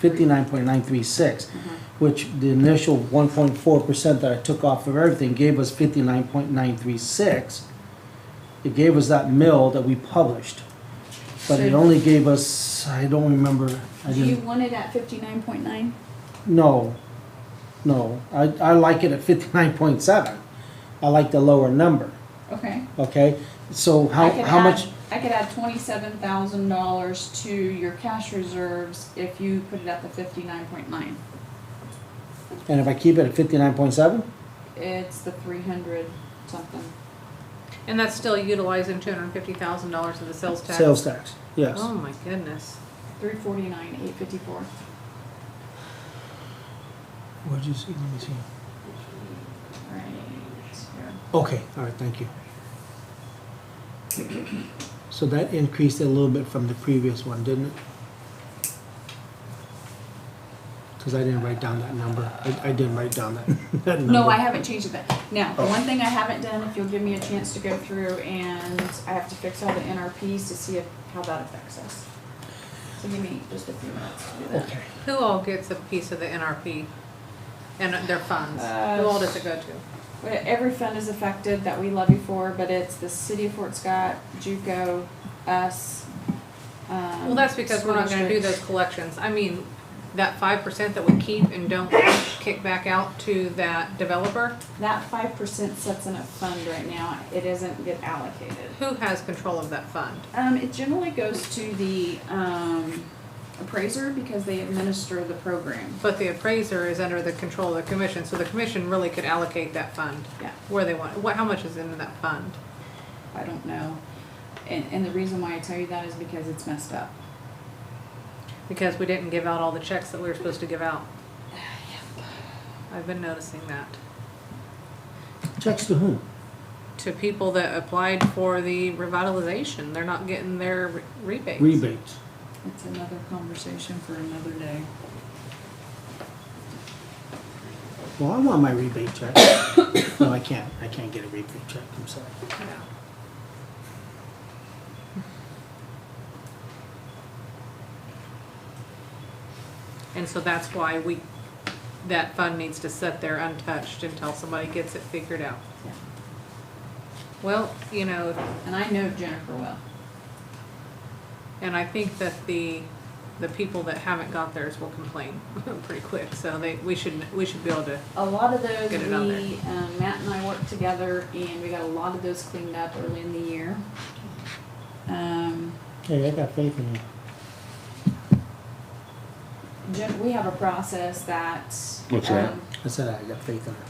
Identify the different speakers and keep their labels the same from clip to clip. Speaker 1: 59.936,
Speaker 2: Mm-hmm.
Speaker 1: which the initial 1.4% that I took off of everything gave us 59.936. It gave us that mill that we published, but it
Speaker 2: So-
Speaker 1: only gave us, I don't remember, I
Speaker 2: Do you
Speaker 1: didn't,
Speaker 2: want it at fifty-nine point nine?
Speaker 1: no, no. I, I like it at 59.7. I like the lower number,
Speaker 2: Okay.
Speaker 1: okay? So how,
Speaker 2: I could
Speaker 1: how
Speaker 2: add-
Speaker 1: much?
Speaker 2: I could add twenty-seven thousand dollars to your cash reserves if you put it at the fifty-nine point nine.
Speaker 1: And if I keep it at 59.7?
Speaker 2: It's the three hundred something.
Speaker 3: And that's still utilizing two hundred and fifty thousand dollars of the sales tax?
Speaker 1: Sales tax, yes.
Speaker 3: Oh, my goodness.
Speaker 2: Three forty-nine, eight fifty-four.
Speaker 1: What did you see? Let me see.
Speaker 2: Right. here.
Speaker 1: Okay, all right, thank you. So that increased a little bit from the previous one, didn't it? Because I didn't write down that number. I, I didn't write down that, that number.
Speaker 2: No, I haven't changed that. Now, the
Speaker 1: Oh.
Speaker 2: one thing I haven't done, if you'll give me a chance to go through and I have to fix all the NRPs to see if, how that affects us. So give me just a few minutes to do that.
Speaker 1: Okay,
Speaker 3: Who all gets a piece of the NRP and their funds?
Speaker 2: Uh,
Speaker 3: Who all does it go to?
Speaker 2: Well, Every fund is affected that we levy for, but it's the city of Fort Scott, JUCO, us. um,
Speaker 3: Well, that's because we're not gonna do those collections. I mean, that five percent that we keep and don't kick back out to that developer,
Speaker 2: That five percent sits in a fund right now, it doesn't get allocated.
Speaker 3: who has control of that fund?
Speaker 2: Um, it generally goes to the, um, appraiser because they administer the program.
Speaker 3: But the appraiser is under the control of the commission, so the commission really could allocate that fund
Speaker 2: Yeah,
Speaker 3: where they want, what, how much is in that fund?
Speaker 2: I don't know. And, and the reason why I tell you that is because it's messed up.
Speaker 3: Because we didn't give out all the checks that we were supposed to give out. I've been noticing that.
Speaker 1: checks to whom?
Speaker 3: To people that applied for the revitalization, they're not getting their re- rebates.
Speaker 1: Rebates.
Speaker 2: It's another conversation for another day.
Speaker 1: Well, I want my rebate check. No, I can't, I can't get a rebate check, I'm sorry.
Speaker 3: Yeah. And so that's why we, that fund needs to sit there untouched until somebody gets it figured out.
Speaker 2: Yeah.
Speaker 3: Well, you know,
Speaker 2: And I know Jennifer well.
Speaker 3: And I think that the, the people that haven't got theirs will complain pretty quick, so they, we should, we should be able to,
Speaker 2: A lot of those,
Speaker 3: Get it out there.
Speaker 2: we, um, Matt and I worked together and we got a lot of those cleaned up early in the year. Um,
Speaker 1: Hey, I got faith in you.
Speaker 2: gen- we have a process that.
Speaker 4: What's that?
Speaker 2: um,
Speaker 1: I said I got faith in her.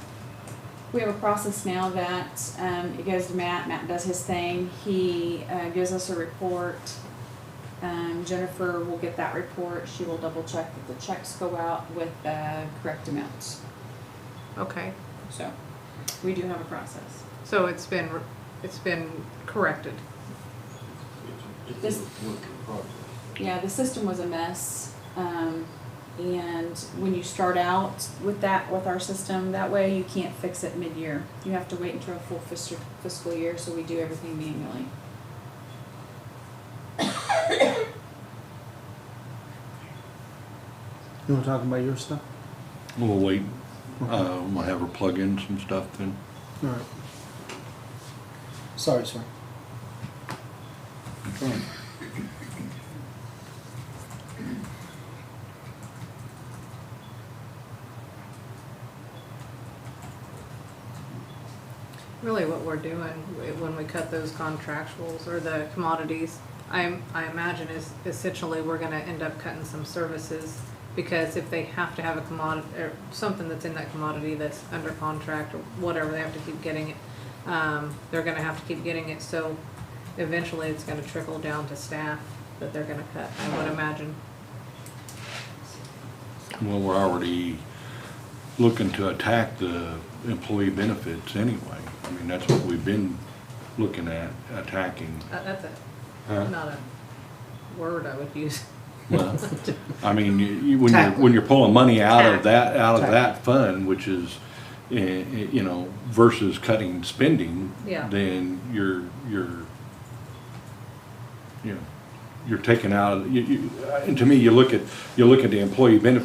Speaker 2: We have a process now that, um, it goes to Matt, Matt does his thing, he, uh, gives us a report. Um, Jennifer will get that report, she will double check that the checks go out with the correct amounts,
Speaker 3: okay.
Speaker 2: so, we do have a process.
Speaker 3: So it's been, re- it's been corrected.
Speaker 2: This- Yeah, the system was a mess. Um, and when you start out with that, with our system, that way you can't fix it mid-year. You have to wait until a full fiscal, fiscal year, so we do everything manually.
Speaker 1: You wanna talk about your stuff?
Speaker 4: We'll wait, uh, we'll have her plug in some stuff then.
Speaker 1: All right. Sorry, sir.
Speaker 3: Really what we're doing when we cut those contractuals or the commodities, I, I imagine is essentially we're gonna end up cutting some services because if they have to have a commodity, or something that's in that commodity that's under contract or whatever, they have to keep getting it. Um, they're gonna have to keep getting it, so eventually it's gonna trickle down to staff that they're gonna cut, I would imagine.
Speaker 4: Well, we're already looking to attack the employee benefits anyway. I mean, that's what we've been looking at, attacking.
Speaker 3: Uh, that's a,
Speaker 4: Huh?
Speaker 3: not a word I would use.
Speaker 4: Well, I mean, you- you, when you're, when you're pulling money out of that, out of
Speaker 1: Tack.
Speaker 4: that fund, which is, eh, eh, you know, versus cutting spending.
Speaker 3: Yeah.
Speaker 4: Then you're, you're, you know, you're taking out, you, you, and to me, you look at, you look at the employee benefit